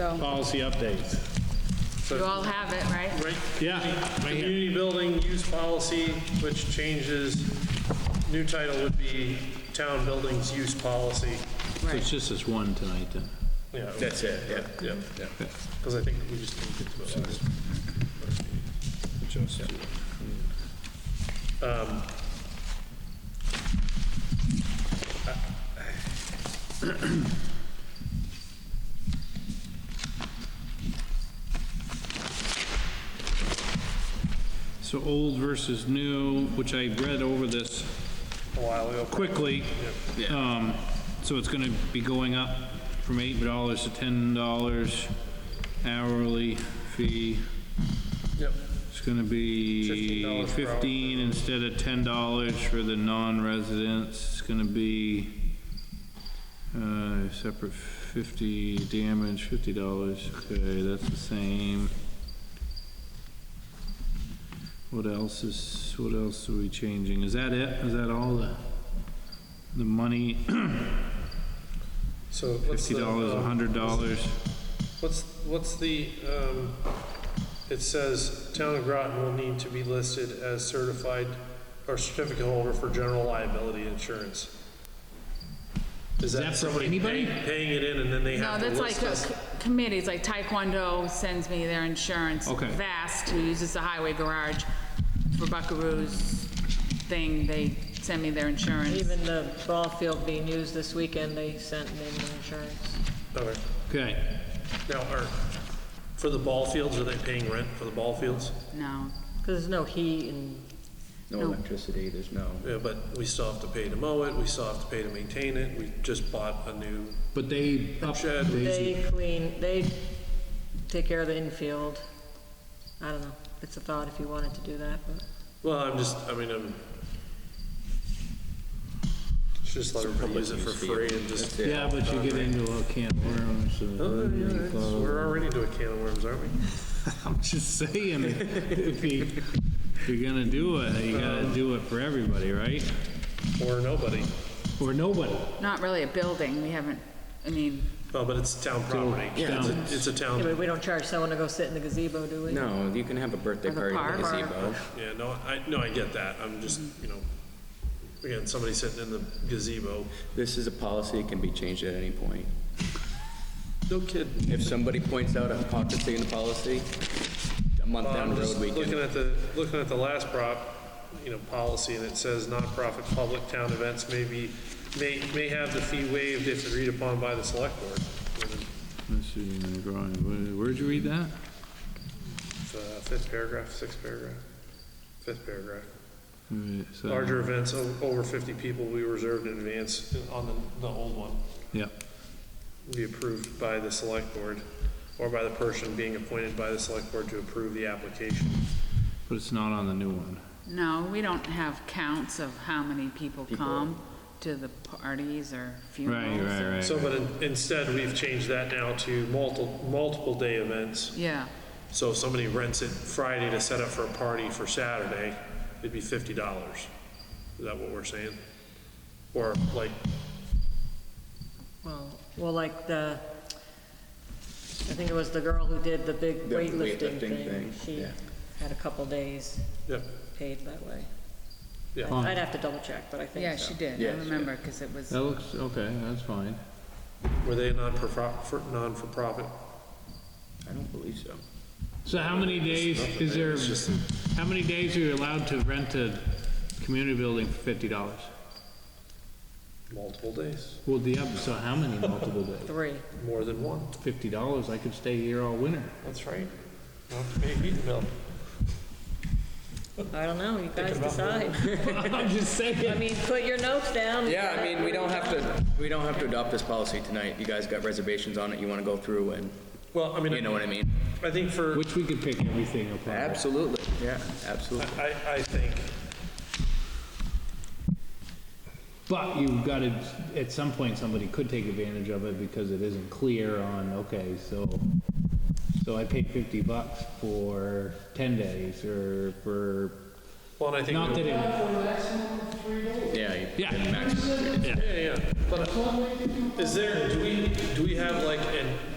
So policy updates. you all have it, right? Right, Yeah, right here. community building use policy, which changes, new title would be town buildings use policy. It's just this one tonight, then. Yeah, That's it, yeah. yeah, because I think we just didn't get to it last. Just- So old versus new, which I read over this a while ago. quickly. Um, so it's gonna be going up from eight dollars to ten dollars hourly fee. Yep, It's gonna be $15 per hour. fifteen instead of ten dollars for the non-residents. It's gonna be, uh, separate fifty damage, fifty dollars. Okay, that's the same. What else is, what else are we changing? Is that it? Is that all the, the money? so what's Fifty the? dollars, a um, hundred dollars? What's, what's the, um, it says town of Groton will need to be listed as certified or certificate holder for general liability insurance. Is that that for somebody anybody? paying paying it in and then they No, have to that's list like uh, us? committees, like Taekwondo sends me their insurance. Okay. Vast, who uses the highway garage for Buckaroo's thing, they send me their insurance. Even the ball field being used this weekend, they sent in the insurance. Okay. Okay, Now, are, for the ball fields, are they paying rent for the ball fields? No, Because there's no heat and, No electricity, there's no. Yeah, but we still have to pay to mow it, we still have to pay to maintain it, we just bought a new but they up, shed. they clean, they take care of the infield. I don't know, it's a thought if you wanted to do that, but. Well, I'm just, I mean, I'm, just let everybody use it for free and just, That's it. yeah, but you get into a can of worms. so- Oh, yeah, it's- Uh, we're already into a can of worms, aren't we? I'm just saying, if you, if you're gonna do it, you gotta do it for everybody, right? Or nobody. Or nobody. not really a building, we haven't, I mean, Oh, but it's town property. Yeah. It's a- It's a Yeah, town, but we don't charge someone to go sit in the gazebo, do we? No, you can have a birthday Or the party in the park. gazebo. yeah, no, I, no, I get that, I'm just, you know, again, somebody sitting in the gazebo. This is a policy, it can be changed at any point. No kidding. If somebody points out a hypocrisy in the policy, a month Well, down I'm the just road, we Looking can. at the, looking at the last prop, you know, policy, and it says nonprofit public town events may be, may, may have the fee waived if agreed upon by the select board. Let's see, in the drawing, where- where'd you read that? It's, uh, Fifth paragraph, sixth paragraph, fifth paragraph. Alright, so- Larger events o- over 50 people we reserved in advance on the, the old one. Yeah, Be approved by the select board or by the person being appointed by the select board to approve the application. but it's not on the new one. no, we don't have counts of how many people come to the parties or Right, funerals. right, or- right. So, but in- instead, we've changed that now to multiple, multiple day events. Yeah, So if somebody rents it Friday to set up for a party for Saturday, it'd be fifty dollars. Is that what we're saying? Or like, Well, well, like the, I think it was the girl who did the big The weightlifting weightlifting thing. thing, She yeah. had a couple days yeah, paid that way. Yeah. I- I'd have to double check, but I think so. yeah, she did, I Yes, yeah. remember, because it was, That looks, okay, that's fine. were they a non-for-profit, non-for-profit? I don't believe so. So how many days is there, how many days are you allowed to rent a community building for fifty dollars? Multiple days, Well, the, other- so how many multiple days? Three. more than one. Fifty dollars, I could stay here all winter. That's right. Well, maybe, no. I don't know, you guys decide. I'm just I saying. mean, put your notes down. Yeah, I mean, we don't have to, we don't have to adopt this policy tonight. You guys got reservations on it, you wanna go through and, Well, I mean. you know what I mean? I think for. Which we could pick everything up. on. Absolutely, yeah, absolutely. I, I think, But you've got to, at some point, somebody could take advantage of it because it isn't clear on, okay, so, so I paid fifty bucks for ten days or for, well, and I think. not that it, Yeah, you Yeah. maximum. Yeah, yeah, but uh, is there, do we, do we have like an